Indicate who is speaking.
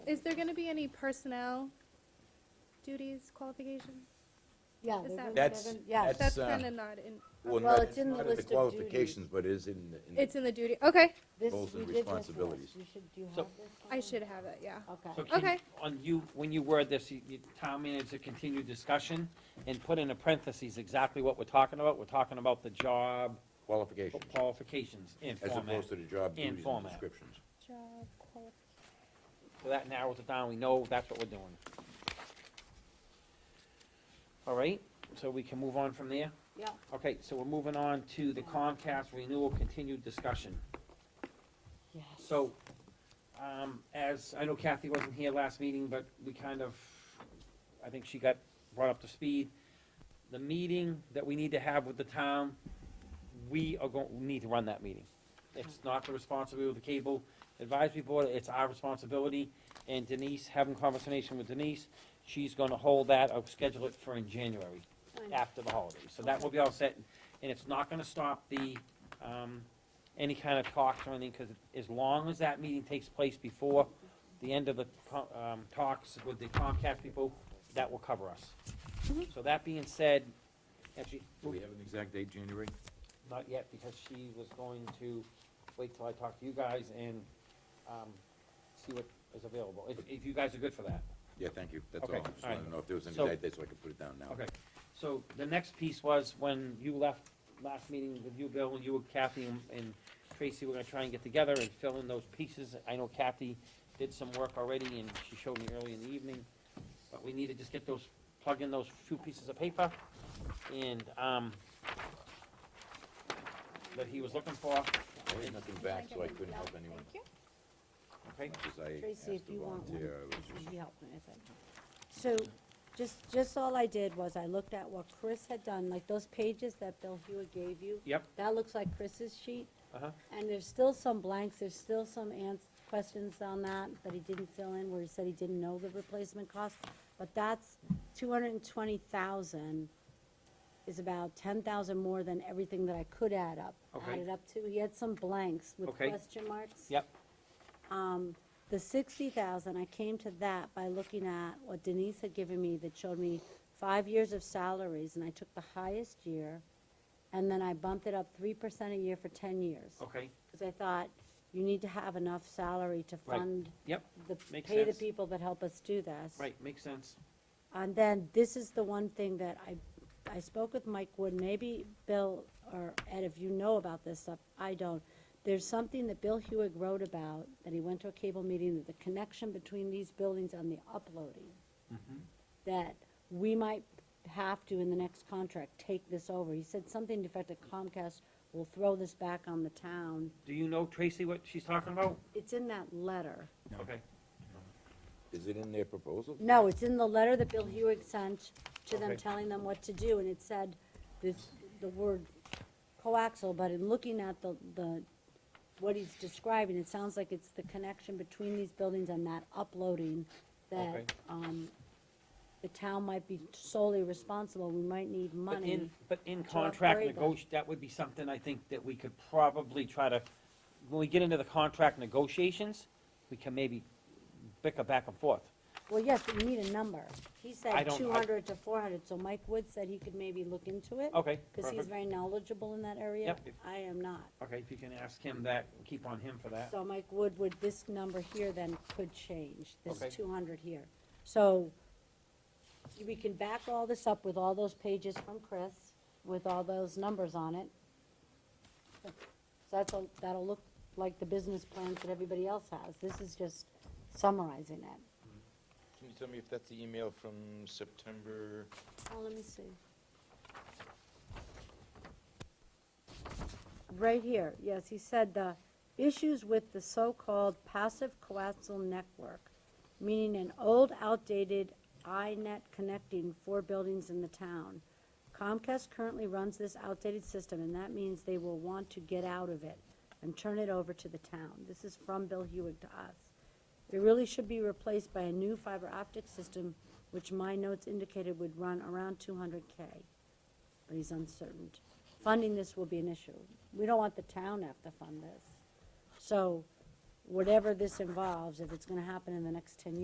Speaker 1: Is there gonna be any personnel duties, qualifications?
Speaker 2: Yeah.
Speaker 1: Is
Speaker 2: they're
Speaker 1: that-
Speaker 2: doing
Speaker 1: That's-
Speaker 2: seven- Yeah,
Speaker 1: That's
Speaker 3: uh,
Speaker 1: kinda not in,
Speaker 3: Well,
Speaker 2: Well,
Speaker 3: not,
Speaker 2: it's in the
Speaker 3: not in
Speaker 2: list
Speaker 3: the
Speaker 2: of
Speaker 3: qualifications, but is in, the- in the-
Speaker 1: it's in the duty, okay,
Speaker 2: this,
Speaker 3: roles
Speaker 2: we
Speaker 3: and
Speaker 2: did just this.
Speaker 3: responsibilities.
Speaker 2: You should, do you
Speaker 4: So-
Speaker 2: have this?
Speaker 1: I
Speaker 2: one?
Speaker 1: should have it, yeah.
Speaker 2: Okay.
Speaker 4: So can,
Speaker 1: Okay.
Speaker 4: on you, when you word this, you, you, town manager continue discussion and put in a parentheses exactly what we're talking about. We're talking about the job
Speaker 3: qualifications,
Speaker 4: qualifications in
Speaker 3: as
Speaker 4: format.
Speaker 3: opposed to the job
Speaker 4: In
Speaker 3: duties and
Speaker 4: format.
Speaker 3: descriptions.
Speaker 1: Job qualifications.
Speaker 4: So that narrows it down. We know that's what we're doing. All right, so we can move on from there?
Speaker 2: Yeah,
Speaker 4: Okay, so we're moving on to the Comcast renewal continued discussion.
Speaker 2: yes.
Speaker 4: So, um, as, I know Kathy wasn't here last meeting, but we kind of, I think she got brought up to speed. The meeting that we need to have with the town, we are going, we need to run that meeting. It's not the responsibility of the cable advisory board, it's our responsibility. And Denise, having conversation with Denise, she's gonna hold that, I'll schedule it for in January
Speaker 2: Fine.
Speaker 4: after the holidays, so that will be all set, and it's not gonna stop the, um, any kind of talks or anything, because as long as that meeting takes place before the end of the, co- um, talks with the Comcast people, that will cover us. So that being said, actually,
Speaker 3: Do we have an exact date, January?
Speaker 4: not yet, because she was going to wait till I talk to you guys and, um, see what is available, if, if you guys are good for that.
Speaker 3: Yeah, thank you, that's all.
Speaker 4: Okay,
Speaker 3: I just
Speaker 4: all right.
Speaker 3: wanted to know if there was any
Speaker 4: So-
Speaker 3: date, there, so I could put it down now.
Speaker 4: Okay, so the next piece was when you left last meeting with you, Bill, you and Kathy and- and Tracy were gonna try and get together and fill in those pieces. I know Kathy did some work already and she showed me early in the evening, but we need to just get those, plug in those few pieces of paper and, um, that he was looking for,
Speaker 3: I heard nothing back, so I couldn't help anyone.
Speaker 1: Thank you.
Speaker 4: okay?
Speaker 3: Because I asked
Speaker 2: Tracy, if
Speaker 3: to
Speaker 2: you want one,
Speaker 3: volunteer, I was just-
Speaker 2: she helped me with it. So, just, just all I did was I looked at what Chris had done, like those pages that Bill Hewitt gave you.
Speaker 4: Yep,
Speaker 2: That looks like Chris's sheet,
Speaker 4: uh-huh,
Speaker 2: and there's still some blanks, there's still some ans, questions on that, that he didn't fill in, where he said he didn't know the replacement cost. But that's two hundred and twenty thousand is about ten thousand more than everything that I could add up.
Speaker 4: Okay.
Speaker 2: Added up to, he had some blanks with
Speaker 4: Okay.
Speaker 2: question marks.
Speaker 4: yep,
Speaker 2: Um, the sixty thousand, I came to that by looking at what Denise had given me that showed me five years of salaries, and I took the highest year, and then I bumped it up three percent a year for ten years.
Speaker 4: okay,
Speaker 2: Because I thought, you need to have enough salary to
Speaker 4: Right.
Speaker 2: fund
Speaker 4: yep,
Speaker 2: the,
Speaker 4: Makes
Speaker 2: pay the
Speaker 4: sense.
Speaker 2: people that help us do this.
Speaker 4: right, makes sense.
Speaker 2: And then, this is the one thing that I, I spoke with Mike Wood, maybe Bill or Ed, if you know about this stuff, I don't. There's something that Bill Hewig wrote about, that he went to a cable meeting, that the connection between these buildings and the uploading,
Speaker 4: Mm-hmm.
Speaker 2: that we might have to, in the next contract, take this over. He said something to the effect that Comcast will throw this back on the town.
Speaker 4: Do you know Tracy what she's talking about?
Speaker 2: It's in that letter.
Speaker 4: Okay,
Speaker 3: Is it in their proposal?
Speaker 2: No, it's in the letter that Bill Hewig sent to them,
Speaker 4: Okay.
Speaker 2: telling them what to do, and it said this, the word coaxial, but in looking at the, the, what he's describing, it sounds like it's the connection between these buildings and that uploading
Speaker 4: Okay.
Speaker 2: that, um, the town might be solely responsible, we might need
Speaker 4: But in,
Speaker 2: money.
Speaker 4: but in
Speaker 2: to
Speaker 4: contract
Speaker 2: upgrade them.
Speaker 4: negoti, that would be something I think that we could probably try to, when we get into the contract negotiations, we can maybe bicker back and forth.
Speaker 2: Well, yes, but you need a number. He
Speaker 4: I
Speaker 2: said
Speaker 4: don't- I-
Speaker 2: two hundred to four hundred, so Mike Wood said he could maybe look into it.
Speaker 4: Okay,
Speaker 2: Cause he's
Speaker 4: Oh, perfect.
Speaker 2: very knowledgeable in that area.
Speaker 4: Yep, if-
Speaker 2: I am not.
Speaker 4: Okay, if you can ask him that, keep on him for that.
Speaker 2: So Mike Wood, would this number here then could change, this
Speaker 4: Okay.
Speaker 2: two hundred here? So we can back all this up with all those pages from Chris, with all those numbers on it. So that's, all- that'll look like the business plans that everybody else has. This is just summarizing it.
Speaker 5: Can you tell me if that's the email from September?
Speaker 2: Oh, let me see. Right here, yes, he said the issues with the so-called passive coaxial network, meaning an old outdated iNet connecting four buildings in the town. Comcast currently runs this outdated system, and that means they will want to get out of it and turn it over to the town. This is from Bill Hewig to us. It really should be replaced by a new fiber optic system, which my notes indicated would run around two hundred K. But he's uncertain. Funding this will be an issue. We don't want the town to have to fund this. So whatever this involves, if it's gonna happen in the next ten years.